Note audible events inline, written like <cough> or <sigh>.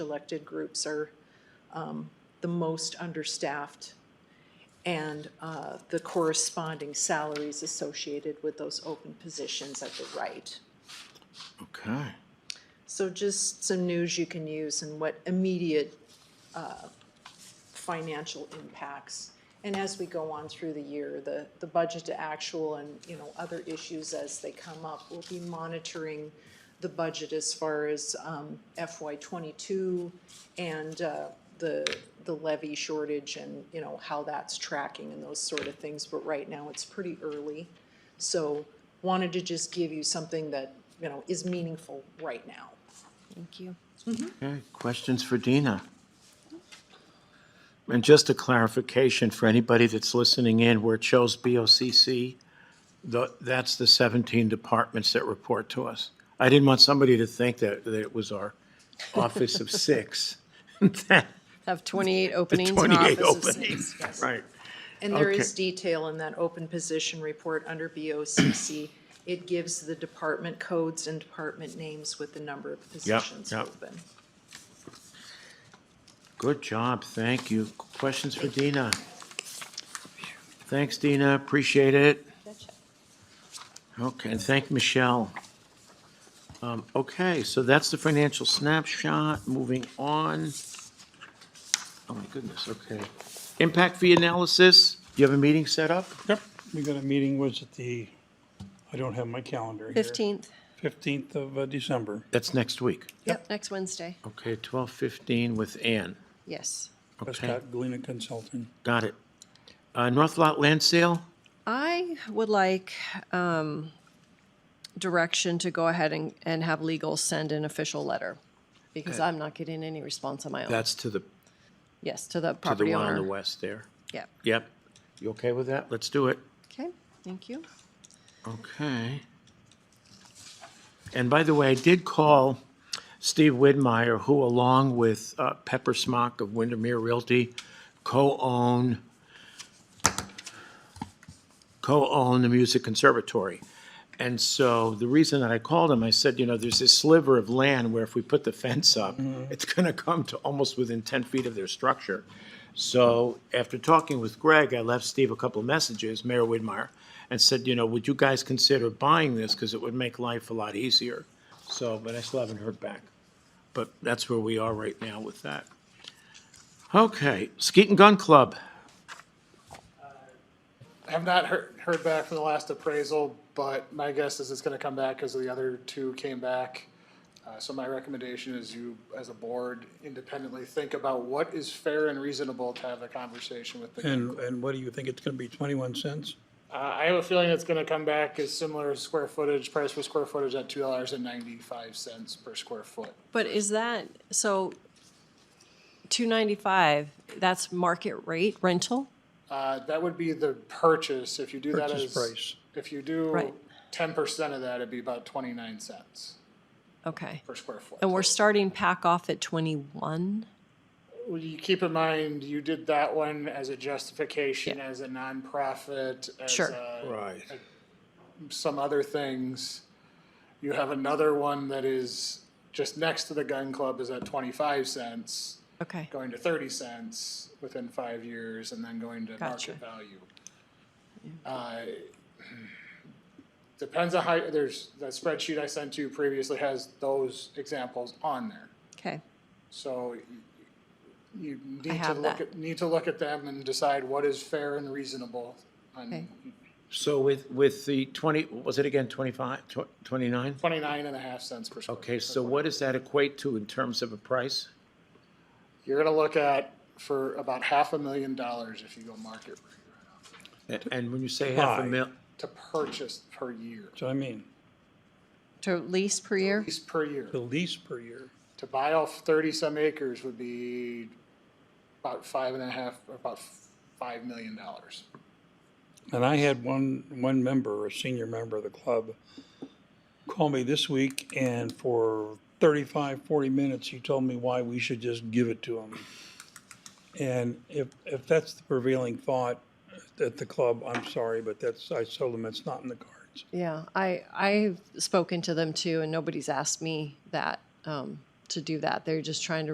elected groups are um, the most understaffed and uh, the corresponding salaries associated with those open positions at the right. Okay. So just some news you can use and what immediate uh, financial impacts. And as we go on through the year, the, the budget to actual and, you know, other issues as they come up, we'll be monitoring the budget as far as um, FY twenty-two and uh, the, the levy shortage and, you know, how that's tracking and those sort of things. But right now, it's pretty early. So wanted to just give you something that, you know, is meaningful right now. Thank you. Okay, questions for Dina? And just a clarification for anybody that's listening in, where it shows BOCC, tho- that's the 17 departments that report to us. I didn't want somebody to think that, that it was our office of six. <laughs> Have 28 openings in 28 offices. openings. Right. And there is Okay. detail in that open position report under BOCC. It gives the department codes and department names with the number of positions yep. open. Good job, thank you. Questions for Dina? Thanks, Dina, appreciate it. Okay, and thank Michelle. Um, Okay, so that's the financial snapshot, moving on. Oh my goodness, okay. Impact fee analysis, do you have a meeting set up? Yep, we got a meeting, was it the, I don't have my calendar here. 15th. Fifteenth of uh, December. That's next week. Yep. Next Wednesday. Okay, 12:15 with Ann. Yes. Okay, Prescott Galena Consulting. got it. Uh, North Lot Land Sale? I would like um, direction to go ahead and, and have legal send an official letter because I'm not getting any response on my own. That's to the, Yes, to the to the property one on the owner. west there. Yeah. Yep. You okay with that? Let's do it. Okay, thank you. Okay. And by the way, I did call Steve Widmeyer, who along with uh, Pepper Smock of Windermere Realty co-own, co-own the Music Conservatory. And so the reason that I called him, I said, you know, there's this sliver of land where if we put the fence up, it's <laughs> going to come to almost within 10 feet of their structure. So after talking with Greg, I left Steve a couple of messages, Mayor Widmeyer, and said, you know, would you guys consider buying this? Because it would make life a lot easier. So, but I still haven't heard back. But that's where we are right now with that. Okay, Skeet and Gun Club. I have not heard, heard back from the last appraisal, but my guess is it's gonna come back because the other two came back. Uh, so my recommendation is you, as a board, independently think about what is fair and reasonable to have a conversation with the. And, and what do you think, it's gonna be twenty-one cents? Uh, I have a feeling it's gonna come back as similar square footage, price per square footage at two dollars and ninety-five cents per square foot. But is that, so 295, that's market rate rental? Uh, that would be the purchase, if you do that Purchase as. price. If you do Right. ten percent of that, it'd be about twenty-nine cents Okay. per square foot. And we're starting pack off at 21? Well, you keep in mind, you did that one as a justification, as a nonprofit, as Sure. a- Right. some other things. You have another one that is just next to the gun club is at twenty-five cents, Okay. going to thirty cents within five years, and then going to Gotcha. market value. Uh, <clears throat> Depends on how, there's, that spreadsheet I sent you previously has those examples on there. Okay. So you need to have look that. at, need to look at them and decide what is fair and reasonable. Okay. on So with, with the 20, what was it again, 25, tw- 29? Twenty-nine and a half cents per square. Okay, so what does that equate to in terms of a price? You're gonna look at for about half a million dollars if you go market rate A- And when you say half a Buy. mil, to purchase per year, So I mean, To lease per year? lease per year. the lease per year. To buy off thirty-some acres would be about five and a half, about five million dollars. And I had one, one member, a senior member of the club, call me this week and for 35, 40 minutes, he told me why we should just give it to him. And if, if that's the prevailing thought at the club, I'm sorry, but that's, I told him it's not in the cards. Yeah, I, I've spoken to them too, and nobody's asked me that, um, to do that. They're just trying to